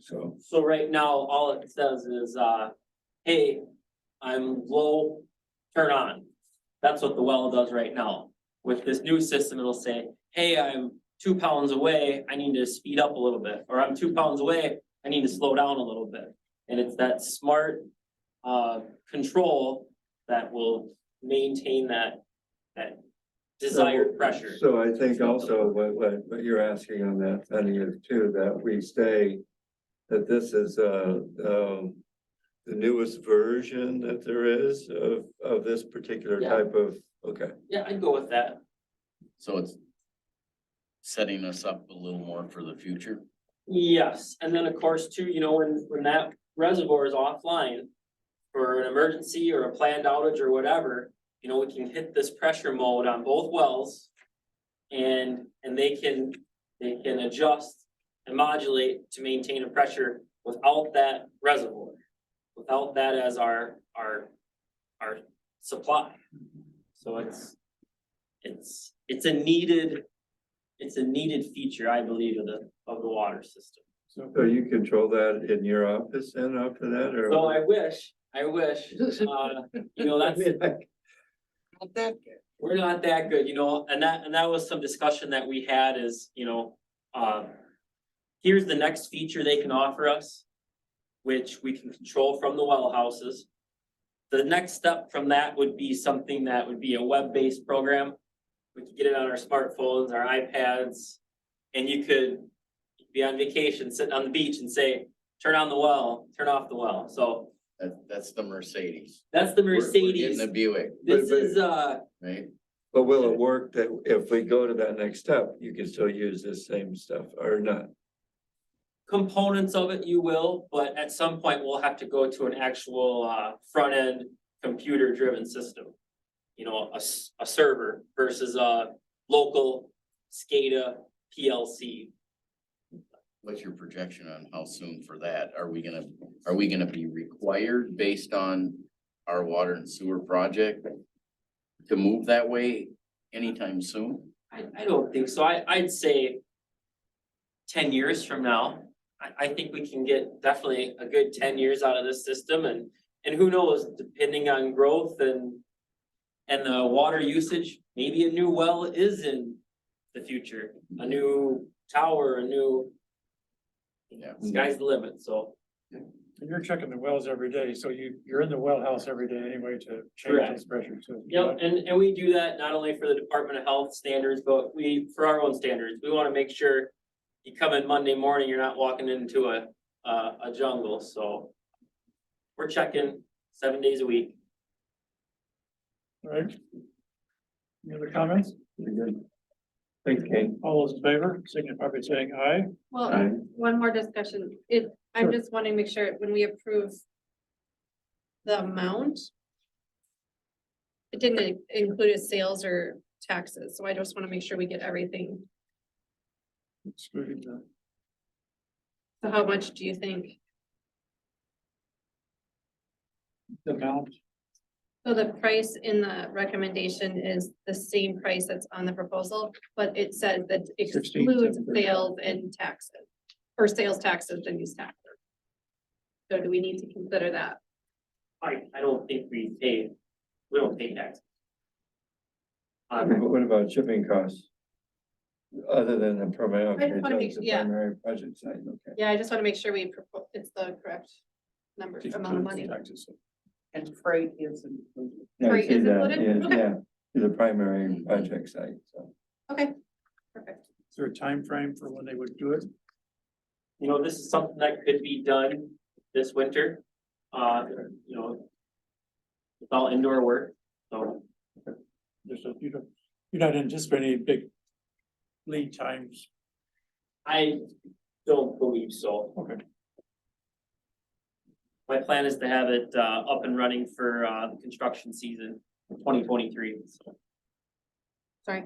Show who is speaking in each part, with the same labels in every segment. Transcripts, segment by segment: Speaker 1: so.
Speaker 2: So right now, all it says is, uh, hey, I'm low, turn on. That's what the well does right now. With this new system, it'll say, hey, I'm two pounds away, I need to speed up a little bit, or I'm two pounds away, I need to slow down a little bit. And it's that smart, uh, control that will maintain that, that desired pressure.
Speaker 1: So I think also what, what, what you're asking on that, Penny, is too, that we say that this is, uh, um, the newest version that there is of, of this particular
Speaker 2: Yeah.
Speaker 1: type of, okay.
Speaker 2: Yeah, I'd go with that.
Speaker 3: So it's setting us up a little more for the future.
Speaker 2: Yes, and then of course too, you know, when, when that reservoir is offline for an emergency or a planned outage or whatever, you know, we can hit this pressure mode on both wells. And, and they can, they can adjust and modulate to maintain a pressure without that reservoir. Without that as our, our, our supply. So it's, it's, it's a needed, it's a needed feature, I believe, of the, of the water system.
Speaker 1: So you control that in your office and up to that, or?
Speaker 2: So I wish, I wish, uh, you know, that's, we're not that good, you know, and that, and that was some discussion that we had is, you know, uh. Here's the next feature they can offer us, which we can control from the well houses. The next step from that would be something that would be a web-based program. We could get it on our smartphones, our iPads, and you could be on vacation, sitting on the beach and say, turn on the well, turn off the well, so
Speaker 3: That, that's the Mercedes.
Speaker 2: that's the
Speaker 3: We're- we're getting
Speaker 2: Mercedes.
Speaker 3: The Buick,
Speaker 2: This is, uh,
Speaker 3: right?
Speaker 1: But will it work that if we go to that next step, you can still use this same stuff or not?
Speaker 2: components of it you will, but at some point we'll have to go to an actual uh front end computer driven system. You know, a s- a server versus a local SCADA PLC.
Speaker 3: What's your projection on how soon for that? Are we gonna, are we gonna be required based on our water and sewer project? To move that way anytime soon?
Speaker 2: I I don't think so. I I'd say ten years from now, I I think we can get definitely a good ten years out of this system and and who knows, depending on growth and and the water usage, maybe a new well is in the future, a new tower, a new
Speaker 3: Yeah.
Speaker 2: sky's the limit, so.
Speaker 4: And you're checking the wells every day, so you, you're in the well house every day anyway to change
Speaker 2: Correct.
Speaker 4: those pressures. so-
Speaker 2: Yep, and, and we do that not only for the Department of Health standards, but we, for our own standards, we wanna make sure you come in Monday morning, you're not walking into a, a, a jungle, so we're checking seven days a week.
Speaker 4: All Right? Any other comments?
Speaker 1: Thanks, Kane.
Speaker 4: All those in favor, signify by saying aye.
Speaker 5: Well, one more discussion. It, I'm just wanting to make sure when we approve the amount, it didn't include a sales or taxes, so I just want to make sure we get everything.
Speaker 4: Excluding the-
Speaker 5: So how much do you think?
Speaker 4: The amount,
Speaker 5: So the price in the recommendation is the same price that's on the proposal, but it says that excludes sales and taxes, or sales taxes and use taxes. So do we need to consider that?
Speaker 2: I, I don't think we pay, we don't pay taxes. Um,
Speaker 1: What about shipping costs? Other than the primary,
Speaker 5: I
Speaker 1: okay,
Speaker 5: just wanna make-
Speaker 1: that's the
Speaker 5: yeah.
Speaker 1: primary budget side, okay.
Speaker 5: Yeah, I just want to make sure we, propo- it's the correct number, amount of money.
Speaker 6: And freight is included.
Speaker 1: Yeah, I
Speaker 5: Right,
Speaker 1: see
Speaker 5: is it
Speaker 1: that,
Speaker 5: included?
Speaker 1: yeah,
Speaker 5: Okay.
Speaker 1: Yeah, to the primary project site, so.
Speaker 5: Okay, perfect.
Speaker 4: is there a time frame for when they would do it?
Speaker 2: you know, this is something that could be done this winter, uh, you know, it's all indoor work, so.
Speaker 4: There's a, you don't, you're not anticipating any big lead times.
Speaker 2: I don't believe so.
Speaker 4: Okay.
Speaker 2: My plan is to have it uh up and running for uh the construction season twenty twenty-three, so.
Speaker 5: Sorry.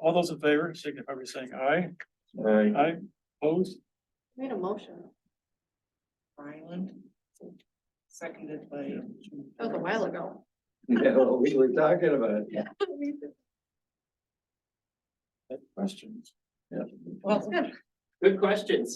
Speaker 4: All those in favor, signify by saying aye.
Speaker 1: I,
Speaker 4: Aye, opposed,
Speaker 5: Made a motion.
Speaker 6: Ryland, seconded by.
Speaker 5: That was a while ago.
Speaker 1: yeah, well, we were talking about, it.
Speaker 4: questions.
Speaker 6: Well,
Speaker 2: Good questions.